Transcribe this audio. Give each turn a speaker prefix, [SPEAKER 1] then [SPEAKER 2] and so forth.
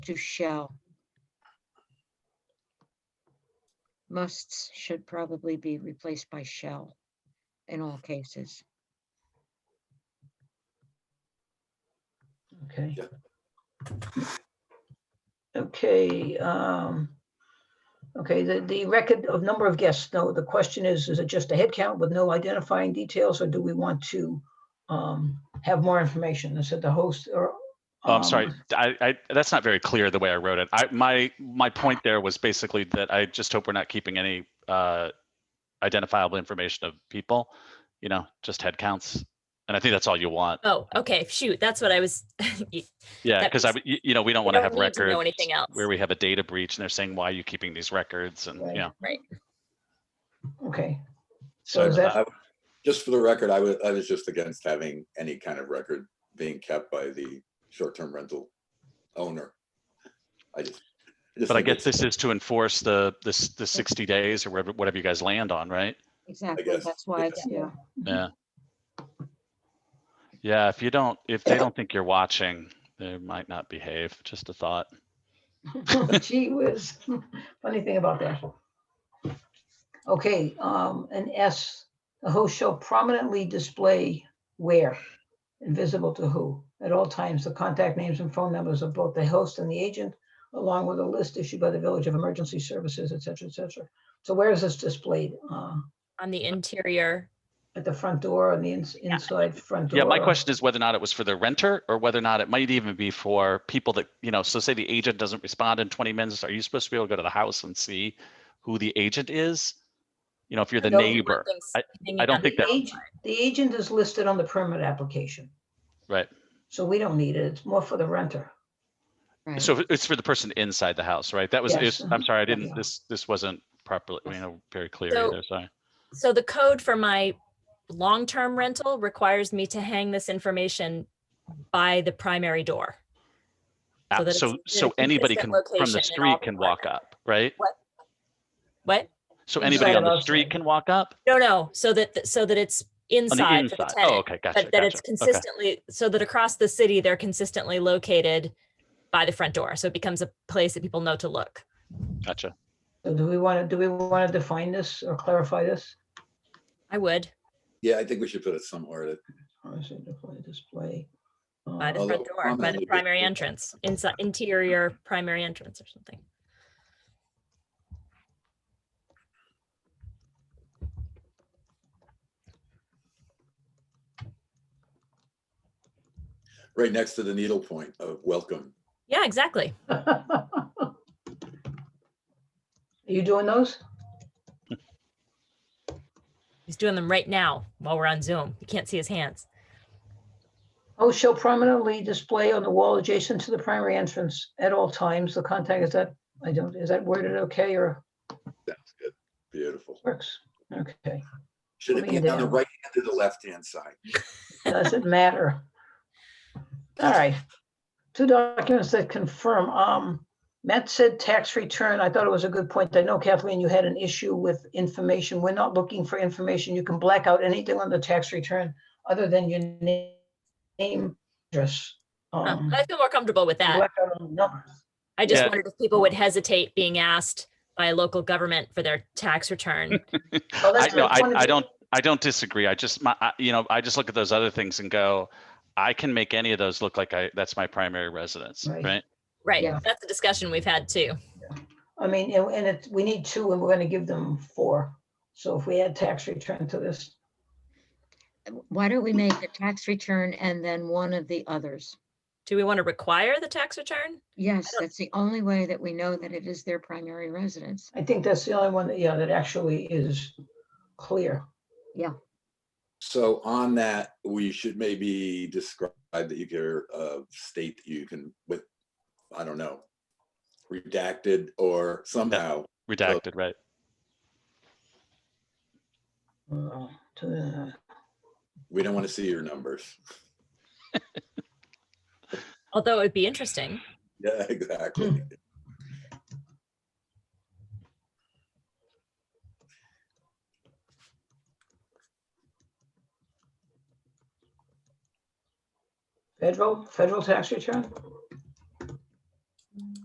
[SPEAKER 1] to shall. Musts should probably be replaced by shall in all cases.
[SPEAKER 2] Okay.
[SPEAKER 3] Yeah.
[SPEAKER 2] Okay, um, okay, the, the record of number of guests, no, the question is, is it just a head count with no identifying details, or do we want to um, have more information? I said the host or.
[SPEAKER 4] Oh, I'm sorry.
[SPEAKER 2] um,
[SPEAKER 4] I, I, that's not very clear the way I wrote it. I, my, my point there was basically that I just hope we're not keeping any uh, identifiable information of people, you know, just head counts. And I think that's all you want.
[SPEAKER 5] Oh, okay, shoot, that's what I was, you-
[SPEAKER 4] Yeah,
[SPEAKER 5] that
[SPEAKER 4] because I,
[SPEAKER 5] makes-
[SPEAKER 4] you you know, we don't
[SPEAKER 5] we
[SPEAKER 4] want to
[SPEAKER 5] don't
[SPEAKER 4] have
[SPEAKER 5] need to know
[SPEAKER 4] records
[SPEAKER 5] anything else.
[SPEAKER 4] where we have a data breach and they're saying, why are you keeping these records? And,
[SPEAKER 2] Right.
[SPEAKER 4] yeah.
[SPEAKER 2] Okay, so
[SPEAKER 3] So
[SPEAKER 2] is that,
[SPEAKER 3] I- Just for the record, I was, I was just against having any kind of record being kept by the short-term rental owner. I just. just
[SPEAKER 4] But I
[SPEAKER 3] think
[SPEAKER 4] guess
[SPEAKER 3] it's-
[SPEAKER 4] this is to enforce the, this, the 60 days or whatever, whatever you guys land on, right?
[SPEAKER 1] Exactly,
[SPEAKER 3] guess,
[SPEAKER 1] that's why
[SPEAKER 3] yeah.
[SPEAKER 1] it's, yeah,
[SPEAKER 4] Yeah. Yeah, if you don't, if they don't think you're watching, they might not behave. Just a thought.
[SPEAKER 2] gee whiz, funny thing about that. Okay, um, and S, the host shall prominently display where, invisible to who, at all times, the contact names and phone numbers of both the host and the agent, along with a list issued by the Village of Emergency Services, et cetera, et cetera. So where is this displayed? Uh,
[SPEAKER 5] on the interior.
[SPEAKER 2] At the front door, on the ins- inside front door?
[SPEAKER 4] Yeah, my
[SPEAKER 2] or-
[SPEAKER 4] question is whether or not it was for the renter or whether or not it might even be for people that, you know, so say the agent doesn't respond in twenty minutes, are you supposed to be able to go to the house and see who the agent is? You know, if you're the
[SPEAKER 2] No, we
[SPEAKER 4] neighbor,
[SPEAKER 5] things hanging
[SPEAKER 4] I don't
[SPEAKER 5] out
[SPEAKER 4] think
[SPEAKER 5] the
[SPEAKER 4] that-
[SPEAKER 5] outside.
[SPEAKER 2] The agent is listed on the permit application,
[SPEAKER 4] right?
[SPEAKER 2] so we don't need it. It's more for the renter.
[SPEAKER 1] right.
[SPEAKER 4] So if it's for the person inside the house, right? That was,
[SPEAKER 2] Yes.
[SPEAKER 4] it's- I'm sorry, I
[SPEAKER 2] Yeah.
[SPEAKER 4] didn't, this, this wasn't properly, you know, very clear
[SPEAKER 5] So-
[SPEAKER 4] either, sorry.
[SPEAKER 5] So the code for my long-term rental requires me to hang this information by the primary door.
[SPEAKER 4] Uh,
[SPEAKER 5] that it's
[SPEAKER 4] So,
[SPEAKER 5] in a
[SPEAKER 4] so anybody can,
[SPEAKER 5] consistent
[SPEAKER 4] from
[SPEAKER 5] location
[SPEAKER 4] the
[SPEAKER 5] in all
[SPEAKER 4] street
[SPEAKER 5] the
[SPEAKER 4] can walk
[SPEAKER 5] apartments.
[SPEAKER 4] up, right?
[SPEAKER 5] What?
[SPEAKER 4] So
[SPEAKER 2] Inside
[SPEAKER 4] anybody on
[SPEAKER 2] and
[SPEAKER 4] the street
[SPEAKER 2] outside.
[SPEAKER 4] can walk up?
[SPEAKER 5] No, no, so that, so that it's
[SPEAKER 4] On the
[SPEAKER 5] inside for the
[SPEAKER 4] inside? Oh,
[SPEAKER 5] tenant.
[SPEAKER 4] okay, gotcha,
[SPEAKER 5] But that it's
[SPEAKER 4] gotcha. Okay,
[SPEAKER 5] consistently, so that across the city, they're consistently located by the front door. So it becomes a place that people know to look.
[SPEAKER 4] gotcha.
[SPEAKER 2] So do we want to, do we want to define this or clarify this?
[SPEAKER 5] I would,
[SPEAKER 3] Yeah, I think we should put it somewhere that.
[SPEAKER 2] Or is it display, display?
[SPEAKER 5] by the
[SPEAKER 2] uh,
[SPEAKER 3] Although
[SPEAKER 5] front door, by
[SPEAKER 3] prominently
[SPEAKER 5] the primary
[SPEAKER 3] displayed.
[SPEAKER 5] entrance, inside, interior primary entrance or something.
[SPEAKER 3] right next to the needle point of welcome.
[SPEAKER 5] Yeah, exactly.
[SPEAKER 2] Are you doing those?
[SPEAKER 5] He's doing them right now while we're on Zoom. You can't see his hands.
[SPEAKER 2] Oh, shall prominently display on the wall adjacent to the primary entrance at all times. The contact, is that, I don't, is that worded okay or
[SPEAKER 3] That's good. Beautiful.
[SPEAKER 2] works? Okay,
[SPEAKER 3] Should it
[SPEAKER 2] Putting
[SPEAKER 3] be
[SPEAKER 2] it
[SPEAKER 3] on the
[SPEAKER 2] down.
[SPEAKER 3] right hand or the left hand side?
[SPEAKER 2] doesn't matter. All right, two documents that confirm. Um, Matt said tax return. I thought it was a good point. I know Kathleen, you had an issue with information. We're not looking for information. You can black out anything on the tax return other than your na- name, address.
[SPEAKER 5] Huh,
[SPEAKER 2] um,
[SPEAKER 5] I feel more comfortable with that.
[SPEAKER 2] black out on the numbers.
[SPEAKER 5] I just
[SPEAKER 4] Yeah.
[SPEAKER 5] wondered if people would hesitate being asked by a local government for their tax return.
[SPEAKER 2] Well,
[SPEAKER 4] I
[SPEAKER 2] that's
[SPEAKER 4] no,
[SPEAKER 2] what
[SPEAKER 4] I,
[SPEAKER 2] wanted
[SPEAKER 4] I
[SPEAKER 2] to-
[SPEAKER 4] don't, I don't disagree. I just, my, I- you know, I just look at those other things and go, I can make any of those look like I, that's my primary residence,
[SPEAKER 2] Right.
[SPEAKER 4] right?
[SPEAKER 5] Right.
[SPEAKER 2] Yeah.
[SPEAKER 5] That's a discussion we've had too.
[SPEAKER 2] I mean, and, and it, we need two and we're gonna give them four. So if we add tax return to this,
[SPEAKER 1] Why don't we make a tax return and then one of the others?
[SPEAKER 5] Do we want to require the tax return?
[SPEAKER 1] Yes, that's the only way that we know that it is their primary residence.
[SPEAKER 2] I think that's the only one that, yeah, that actually is clear.
[SPEAKER 3] So on that, we should maybe describe that you can uh, state that you can with, I don't know, redacted or somehow.
[SPEAKER 4] Redacted, right?
[SPEAKER 2] Uh, to the-
[SPEAKER 3] We don't want to see your numbers.
[SPEAKER 5] Although it would be interesting.
[SPEAKER 3] Yeah, exactly.
[SPEAKER 2] Federal, federal tax return?